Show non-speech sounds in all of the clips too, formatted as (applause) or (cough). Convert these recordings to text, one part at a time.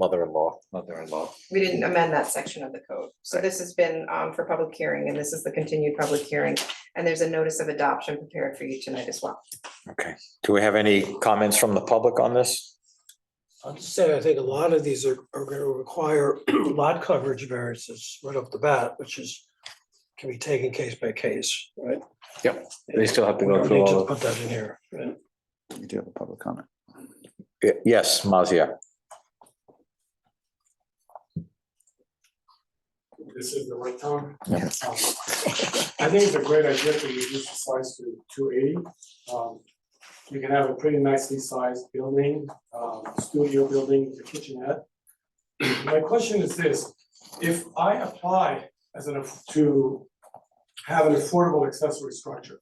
mother-in-law. mother-in-law. we didn't amend that section of the code. So Right. this has been um for public hearing and this is the continued public hearing. And there's a notice of adoption prepared for you tonight as well. Okay, do we have any comments from the public on this? I'll just say, I think a lot of these are, are gonna require (clears throat) lot coverage variances right off the bat, which is, can be taken case by case, right? Yep, they still have to We go don't through need to all of- Put that in here, right? We do have a public comment. Y- Yes, Mazia, this is the right time. Yes. Um, I think it's a great idea to reduce the size to two eighty. Um, you can have a pretty nicely sized building, um, studio building, the kitchenette. (clears throat) My question is this, if I apply as an, aff- to have an affordable accessory structure,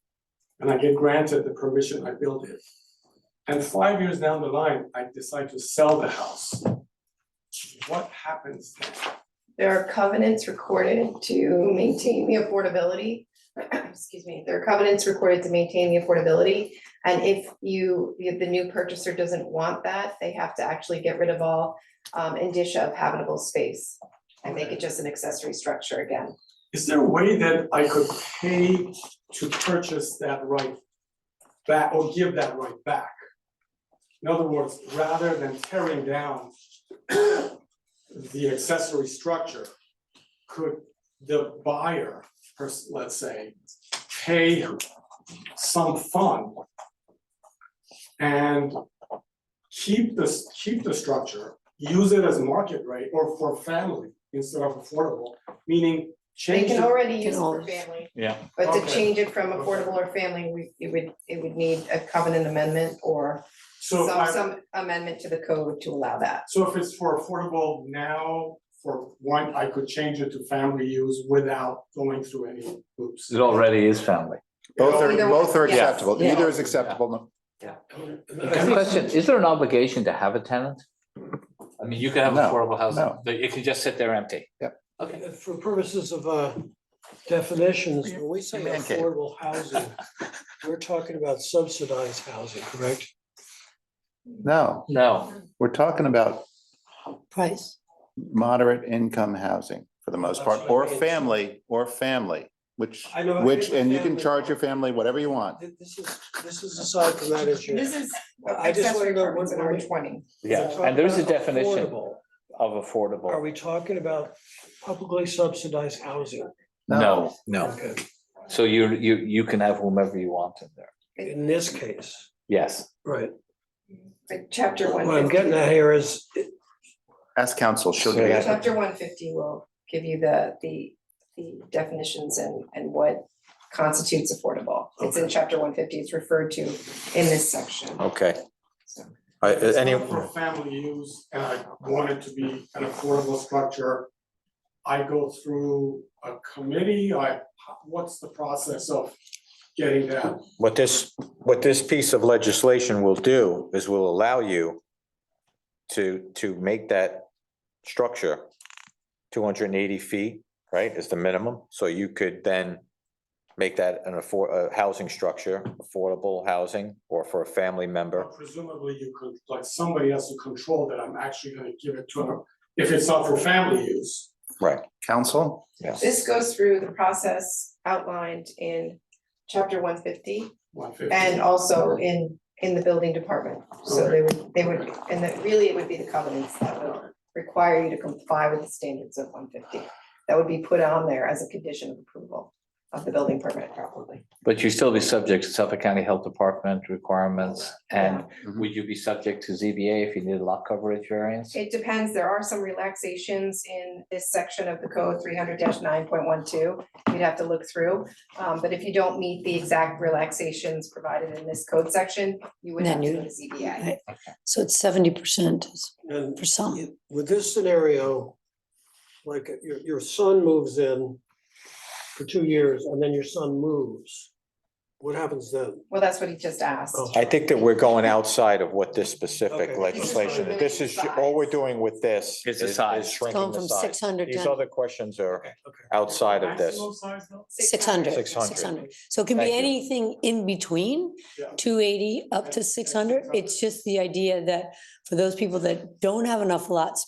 and I get granted the permission, I build it. And five years down the line, I decide to sell the house. What happens then? There are covenants recorded to maintain the affordability. (clears throat) Excuse me, there are covenants recorded to maintain the affordability. And if you, if the new purchaser doesn't want that, they have to actually get rid of all um indicia of habitable space. And make it just an accessory structure again. Is there a way that I could pay to purchase that right back or give that right back? In other words, rather than tearing down (clears throat) the accessory structure, could the buyer, pers- let's say, pay some fund and keep this, keep the structure, use it as market rate or for family instead of affordable, meaning They change can the already use it for family. Yeah. But to Okay. change it from affordable or family, we, it would, it would need a covenant amendment or So some, I, some amendment to the code to allow that. so if it's for affordable now, for one, I could change it to family use without going through any hoops. It already is family. Both are, Either both one, are yeah. acceptable. Yeah. Either is acceptable. Good question, is there an obligation to have a tenant? I mean, you could have No, affordable housing, no. but it could just sit there empty. Okay, For purposes of uh, definitions, when we say Man cave. affordable housing, we're talking about subsidized housing, correct? No, No, we're talking about price. moderate income housing for the most part, That's what or I mean. family, or family, which, I know, I which, think and you can family- charge your family whatever you want. Th- This is, this is aside from that issue. This is I just accessory wanna know apartments in what- R twenty. yeah, We're and there is a talking about definition affordable. of Are affordable. we talking about publicly subsidized housing? No, no, Okay, so you, you, you can have whomever you want in there, in this case, yes. right. Like chapter one What I'm getting fifty, at here is, Ask council, she'll So give you. that- chapter one fifty will give you the, the, the definitions and, and what constitutes affordable. It's in chapter one fifty, it's referred to in this section. okay. So- I- uh, If it's Any, not For family use, and I want it to be an affordable structure, I go through a committee, I, what's the process of getting that? what this, what this piece of legislation will do is will allow you to, to make that structure two hundred and eighty feet, right, is the minimum, so you could then make that an afford, a housing structure, affordable housing, or for a family member. Presumably you could, like, somebody has to control that I'm actually gonna give it to them, if it's not for family use. Council, This goes through the process outlined in chapter one fifty. One fifty. And also in, in the building department, so they would, they would, and that really it would be the covenants that would require you to comply with the standards of one fifty. That would be put on there as a condition of approval of the building permit probably. But you'd still be subject to Suffolk County Health Department requirements, and Mhm. would you be subject to ZBA if you needed lot coverage variance? It depends, there are some relaxations in this section of the code, three hundred nine point one two, you'd have to look through. Um, but if you don't meet the exact relaxations provided in this code section, you would have Then to you- go to ZBA. Right. So it's seventy percent and for some. with this scenario, like your, your son moves in for two years and then your son moves, what happens then? Well, that's what he just asked. Oh. I think that we're going outside of what this specific Okay. legislation, This is this is, all we're doing with this Is is the is size. shrinking Going the from size. six hundred These to other questions are Okay. outside of this. Maximum size though? six hundred. 600. So it can be Thank you. anything in between, Yeah. two eighty up Yeah, to six hundred. It's just the idea that for those people that don't have enough lots